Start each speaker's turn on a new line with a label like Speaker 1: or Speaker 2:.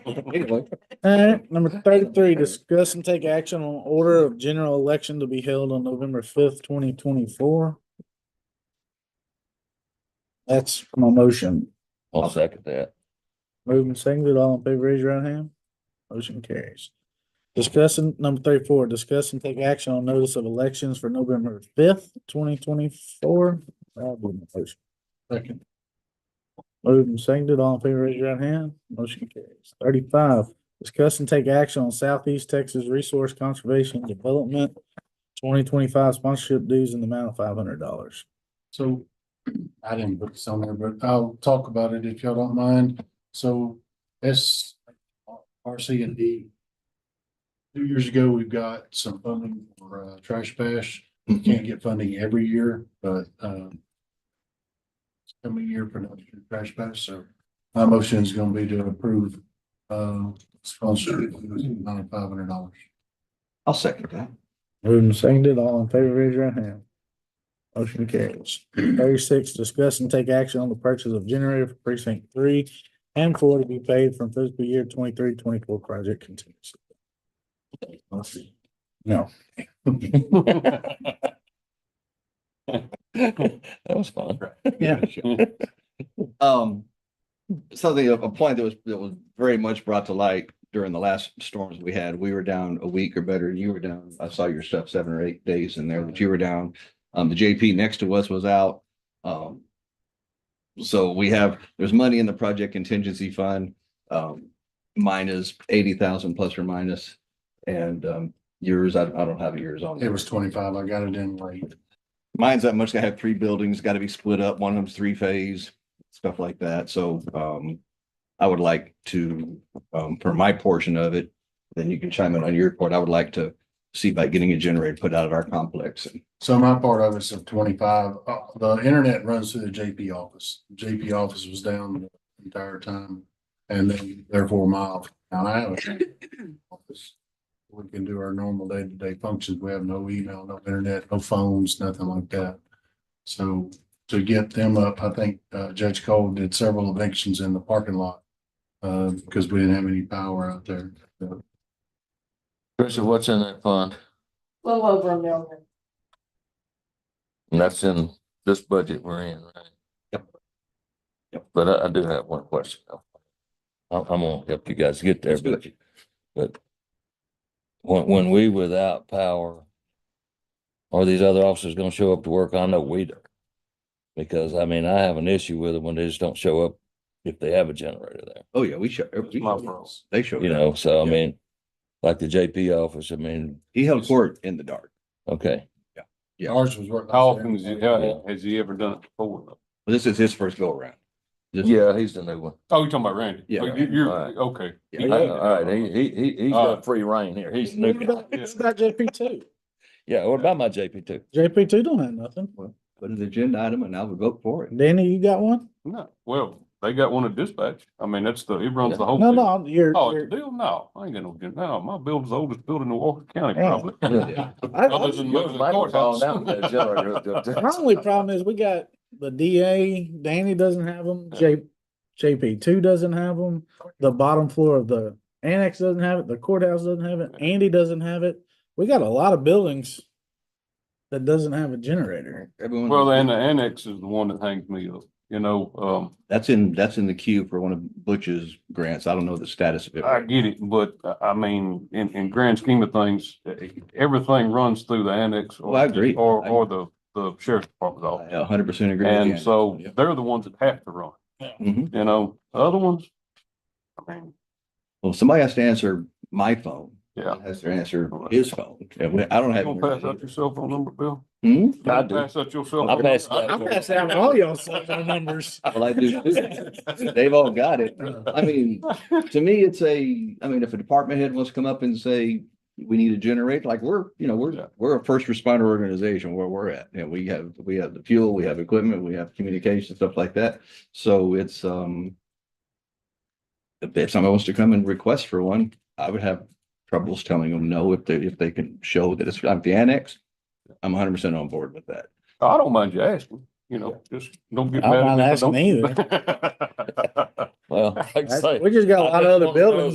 Speaker 1: All right, number thirty-three, discuss and take action on order of general election to be held on November fifth, twenty twenty-four. That's my motion.
Speaker 2: I'll second that.
Speaker 1: Moved and seconded, all in favor, raise your right hand. Motion carries. Discussing, number thirty-four, discuss and take action on notice of elections for November fifth, twenty twenty-four. Second. Moved and seconded, all in favor, raise your right hand. Motion carries. Thirty-five, discuss and take action on Southeast Texas Resource Conservation Development twenty twenty-five sponsorship dues in the amount of five hundred dollars.
Speaker 3: So I didn't put this on there, but I'll talk about it if y'all don't mind. So S R C and D. Two years ago, we've got some funding for uh trash bash. We Can't get funding every year, but um. it's Coming year for another trash bash, so my motion is gonna be to approve uh sponsor ninety five hundred dollars.
Speaker 2: I'll second that.
Speaker 1: Moved and seconded, all in favor, raise your right hand. Motion carries. Thirty-six, discuss and take action on the purchase of generator for precinct three and four to be paid from fiscal year 23-24 project continues. No,
Speaker 2: That was fun.
Speaker 1: Yeah.
Speaker 2: Um, something, a a point that was, that was very much brought to light during the last storms we had, we were down a week or better, you were down, I saw your stuff seven or eight days in there, but you were down. Um, the JP next to us was out, um. So we have, there's money in the project contingency fund, um, mine is eighty thousand plus or minus, And, um, yours, I, I don't have yours on.
Speaker 3: It
Speaker 2: there.
Speaker 3: was twenty five. I got it in late.
Speaker 2: Mine's that much. I have three buildings, gotta be split up. One of them's three phase, stuff like that. So, um, I would like to, um, for my portion of it, then you can chime in on your part. I would like to see about getting a generator put out at our complex. And
Speaker 3: So my part of it's of twenty-five, uh, the internet runs through the JP office, JP office was down the entire time. And then therefore my office, now I have a JP office. We can do our normal day-to-day functions, we have no email, no internet, no phones, nothing like that. So to get them up, I think uh, Judge Cole did several evictions in the parking lot. Uh, because we didn't have any power out there,
Speaker 4: Tricia, what's in that fund?
Speaker 5: Little over a million.
Speaker 4: And that's in this budget we're in, right?
Speaker 2: Yep. Yep.
Speaker 4: But I, I do have one question. though. I'm, I'm gonna help you guys get there,
Speaker 2: Let's do
Speaker 4: but, but when, when we without power, are these other officers gonna show up to work? I know we do. Because, I mean, I have an issue with it when they just don't show up if they have a generator there.
Speaker 2: Oh, yeah, we show. we
Speaker 4: my
Speaker 2: show-
Speaker 4: fault.
Speaker 2: They show.
Speaker 4: You know, so I
Speaker 2: Yeah.
Speaker 4: mean, like the JP office, I mean,
Speaker 2: He held court in the dark.
Speaker 4: okay,
Speaker 2: Yeah.
Speaker 3: ours was. working.
Speaker 6: How often has he, how- has he ever done it before? though?
Speaker 2: This is his first go around. This-
Speaker 4: yeah, he's the new one.
Speaker 6: Oh, you're talking about Randy?
Speaker 2: Yeah.
Speaker 6: Oh, you- You're,
Speaker 4: Alright.
Speaker 6: okay.
Speaker 2: Yeah,
Speaker 4: All right, he, Uh, he, he, he's
Speaker 6: All right.
Speaker 4: got free reign here. He's the new
Speaker 1: What
Speaker 4: guy.
Speaker 1: about what about JP two.
Speaker 4: Yeah, what about my JP two?
Speaker 1: JP two don't have nothing.
Speaker 2: Put an agenda item and I would vote for it.
Speaker 1: Danny, you got one?
Speaker 6: No, well, they got one at dispatch. I mean, that's the, he runs the whole.
Speaker 1: No,
Speaker 6: thing.
Speaker 1: no, you're,
Speaker 6: Oh, it's a
Speaker 1: you're,
Speaker 6: deal? No, I ain't got no, deal. no, my building's the oldest building in Walker County
Speaker 1: Yeah.
Speaker 6: probably.
Speaker 4: Yeah.
Speaker 6: Other than the courthouse.
Speaker 1: my only problem is we got the DA, Danny doesn't have them, J, JP two doesn't have them. The bottom floor of the annex doesn't have it, the courthouse doesn't have it, Andy doesn't have it. We got a lot of buildings that doesn't have a generator.
Speaker 2: Everyone.
Speaker 6: Well, and the annex is the one that hangs me up, you know, um,
Speaker 2: That's in, that's in the queue for one of Butch's grants. I don't know the status of it.
Speaker 6: I get it, but uh, I mean, in, in grand scheme of things, uh, everything runs through the annex. or-
Speaker 2: Well, I agree.
Speaker 6: Or,
Speaker 2: I-
Speaker 6: or the, the sheriff's department's office.
Speaker 2: I a hundred percent agree. with you.
Speaker 6: And so
Speaker 2: Yeah.
Speaker 6: they're the ones that have to run,
Speaker 2: Mhm.
Speaker 6: you know, the other ones. I mean,
Speaker 2: Well, somebody has to answer my phone.
Speaker 6: yeah.
Speaker 2: Has to answer his phone. And we- I don't
Speaker 6: You
Speaker 2: have.
Speaker 6: gonna pass out your cell phone number, Bill?
Speaker 2: Hmm?
Speaker 6: You gonna
Speaker 4: I do.
Speaker 6: Pass out your cell.
Speaker 4: I
Speaker 6: phone
Speaker 4: pass
Speaker 6: number?
Speaker 4: it out.
Speaker 1: I'm passing out all y'all cell phone numbers.
Speaker 2: Well, I do too. They've all got it. I mean, to me, it's a, I mean, if a department head wants to come up and say, we need to generate, like, we're, you know,
Speaker 6: Yeah.
Speaker 2: we're, we're a first responder organization where we're at. And we have, we have the fuel, we have equipment, we have communication, stuff like that. So it's, um, if- if somebody wants to come and request for one, I would have troubles telling them no if they, if they can show that it's, I'm the annex. I'm hundred percent on board with that.
Speaker 6: I don't mind you asking, you know, just don't get
Speaker 1: I
Speaker 6: mad.
Speaker 1: don't mind
Speaker 6: at me if I
Speaker 1: asking either.
Speaker 6: don't.
Speaker 4: Well, like I say.
Speaker 1: We just got a lot of other buildings